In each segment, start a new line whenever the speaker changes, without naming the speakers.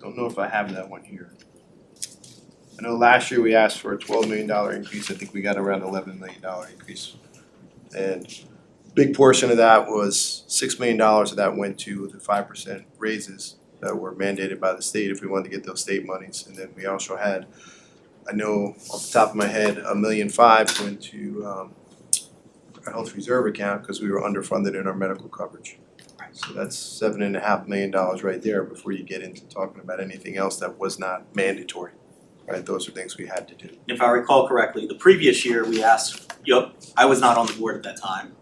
Don't know if I have that one here. I know last year we asked for a twelve million dollar increase, I think we got around eleven million dollar increase. And big portion of that was six million dollars of that went to the five percent raises that were mandated by the state if we wanted to get those state monies. And then we also had, I know off the top of my head, a million five went to um our health reserve account because we were underfunded in our medical coverage. So that's seven and a half million dollars right there before you get into talking about anything else that was not mandatory. Right, those are things we had to do.
If I recall correctly, the previous year we asked, yep, I was not on the board at that time.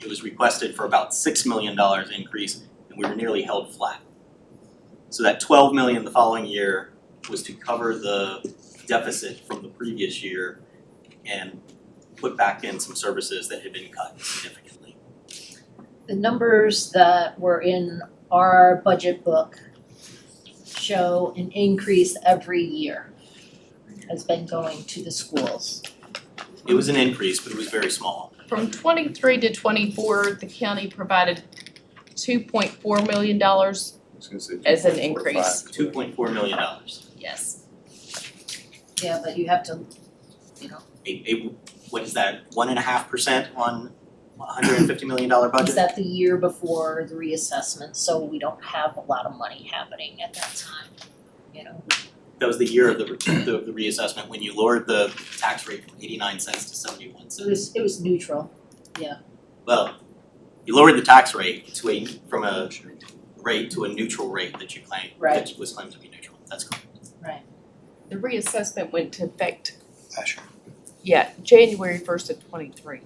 It was requested for about six million dollars increase and we were nearly held flat. So that twelve million the following year was to cover the deficit from the previous year and put back in some services that had been cut significantly.
The numbers that were in our budget book show an increase every year has been going to the schools.
It was an increase, but it was very small.
From twenty-three to twenty-four, the county provided two point four million dollars,
I was gonna say
As an
2.45.
increase.
Two point four million dollars.
yes.
Yeah, but you have to, you know,
A a- what is that, one and a half percent on a hundred and fifty million dollar budget?
is that the year before the reassessment, so we don't have a lot of money happening at that time, you know?
that was the year of the, the, the reassessment, when you lowered the tax rate from eighty-nine cents to seventy-one
So it
cents.
was, it was neutral.
Well, you lowered the tax rate to a, from a rate to a neutral rate that you claimed, that was claimed to be neutral, that's correct.
The reassessment went to effect,
Last year.
yeah, January first of twenty-three.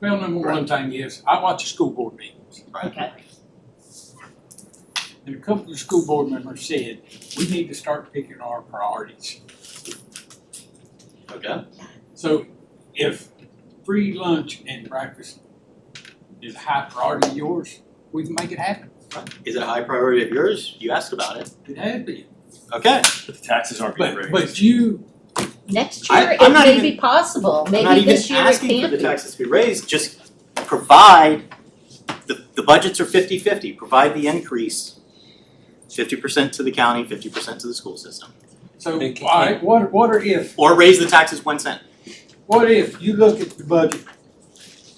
Well, number one thing is, I watch the school board meetings.
Okay.
And a couple of school board members said, we need to start picking our priorities.
Okay.
So if free lunch and breakfast is a high priority of yours, we can make it happen.
Is it a high priority of yours? You asked about it.
It has been.
Okay,
But the taxes aren't being
But,
raised.
but you,
Next
I-
year, it
I'm not
may
even-
be possible,
I'm not
maybe
even
this year it
asking for
can't
the
be.
taxes to be raised, just provide, the, the budgets are fifty-fifty, provide the increase. Fifty percent to the county, fifty percent to the school system,
so,
They can-
alright, what, what are if,
or raise the taxes one cent.
what if you look at the budget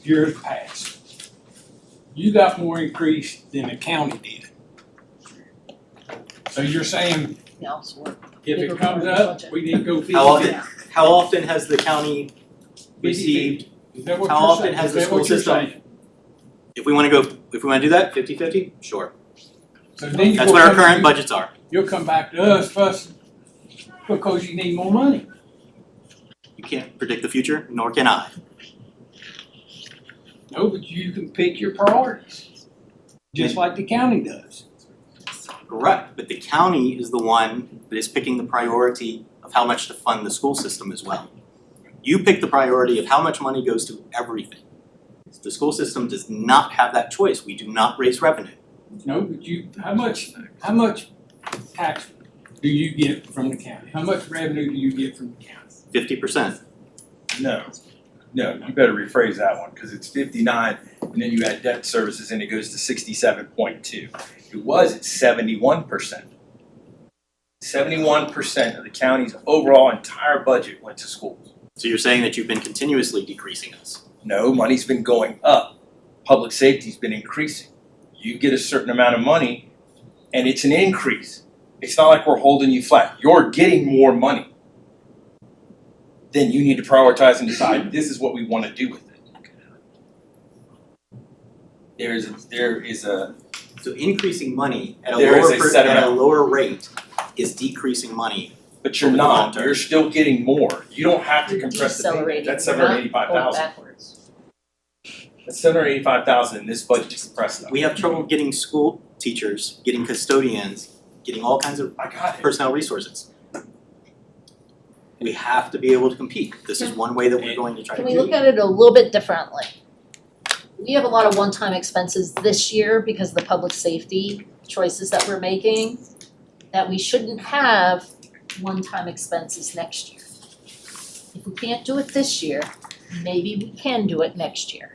years past? You got more increase than the county did. So you're saying
No, it's work.
If
Bigger
it comes
part of the
up,
budget.
we need to go fifty.
How often, how often has the county received,
Is that what
how
you're
often
saying?
has
Is
the
that
school
what you're
system-
saying?
if we wanna go, if we wanna do that, fifty fifty, sure,
So then you
that's
will
what our
come to-
current budgets are.
You'll come back to us first because you need more money.
You can't predict the future, nor can I.
No, but you can pick your priorities, just like the county does.
Correct. But the county is the one that is picking the priority of how much to fund the school system as well. You pick the priority of how much money goes to everything. The school system does not have that choice, we do not raise revenue.
No, but you, how much, how much tax do you get from the county? How much revenue do you get from the county?
Fifty percent,
No, no, you better rephrase that one, cause it's fifty-nine, and then you add debt services and it goes to sixty-seven point two. It was at seventy-one percent. Seventy-one percent of the county's overall entire budget went to schools.
so you're saying that you've been continuously decreasing us.
No, money's been going up, public safety's been increasing. You get a certain amount of money, and it's an increase. It's not like we're holding you flat, you're getting more money. Then you need to prioritize and decide, this is what we wanna do with it. There is, there is a,
So increasing money at a
There is
lower
a
per,
set
at a
amount.
lower rate is decreasing money
but you're
Over the long
not,
term.
you're still getting more, you don't have to
You're
compress the
decelerating.
payment, that's
We're
seven
not
hundred eighty-five
going
thousand.
backwards.
That's seven hundred eighty-five thousand in this budget to compress that.
We have trouble getting school teachers, getting custodians, getting all kinds of
I got it.
personnel resources. We have to be able to compete. This is one way that we're going to try to
Can
do.
we look at it a little bit differently? We have a lot of one-time expenses this year because of the public safety choices that we're making, that we shouldn't have one-time expenses next year. If we can't do it this year, maybe we can do it next year.